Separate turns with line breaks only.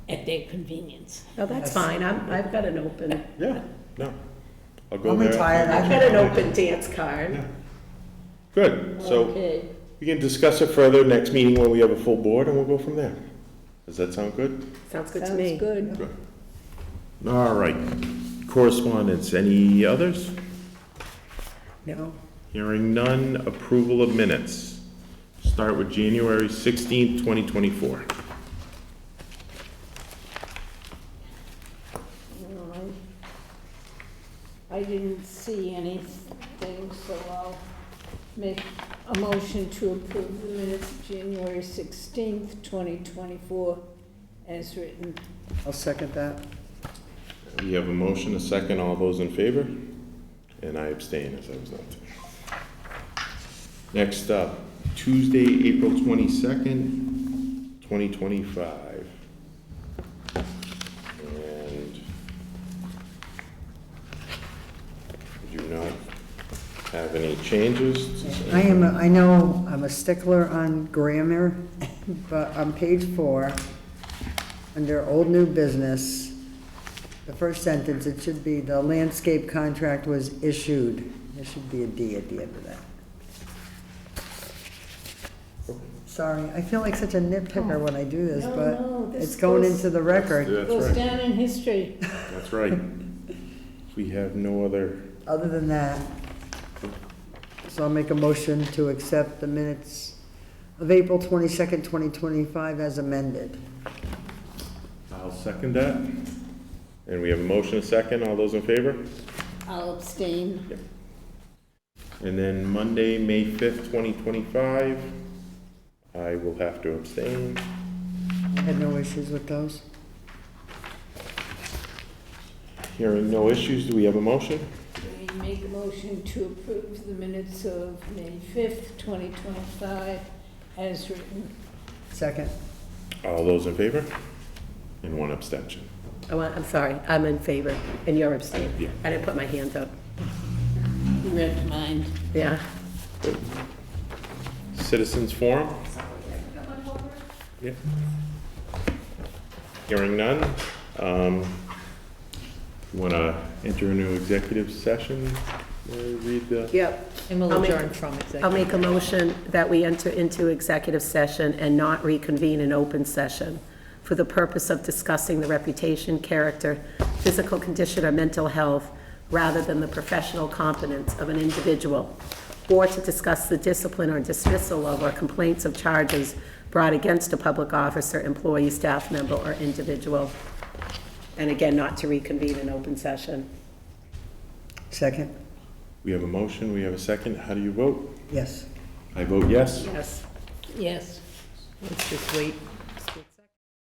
at their convenience.
Oh, that's fine, I'm, I've got an open,
Yeah, no. I'll go
I'm
there.
retired.
I've got an open dance card.
Yeah. Good, so
Okay,
we can discuss it further next meeting when we have a full board and we'll go from there. Does that sound good?
Sounds good to
sounds
me.
good.
All right. Correspondence, any others?
No.
Hearing none, approval of minutes. Start with January sixteenth, twenty twenty-four.
All right. I didn't see anything, so I'll make a motion to approve the minutes of January sixteenth, twenty twenty-four, as written.
I'll second that.
We have a motion, a second, all those in favor? And I abstain, as I was not there. Next up, Tuesday, April twenty-second, twenty twenty-five. And we do not have any changes.
I am, a- I know I'm a stickler on grammar, but on page four, under old new business, the first sentence, it should be, the landscape contract was issued. There should be a D at the end of that. Sorry, I feel like such a nitpicker when I do this,
Oh. No, no,
but
this
it's going
goes-
into the record,
That's
Goes
right,
down in history.
that's right. We have no other,
other than that. So I'll make a motion to accept the minutes of April twenty-second, twenty twenty-five as amended.
I'll second that. And we have a motion, a second, all those in favor?
I'll abstain.
And then Monday, May fifth, twenty twenty-five, I will have to abstain.
I had no issues with those.
Hearing no issues, do we have a motion?
I make a motion to approve the minutes of May fifth, twenty twenty-five, as written.
Second,
All those in favor? And one abstention.
I want, I'm sorry, I'm in favor, and you're
Yeah.
abstaining. I didn't put my hands up.
You read mine.
Yeah,
Citizens forum? Yeah. Hearing none, um, want to enter into executive session? Mary, Read the,
yep.
And we'll
I'll make-
adjourn from executive.
I'll make a motion that we enter into executive session and not reconvene in open session for the purpose of discussing the reputation, character, physical condition, or mental health, rather than the professional competence of an individual, or to discuss the discipline or dismissal of or complaints of charges brought against a public officer, employee, staff member, or individual. And again, not to reconvene in open session.
second,
we have a motion, we have a second, how do you vote?
yes.
I vote yes.
Yes.
Yes.
Let's just wait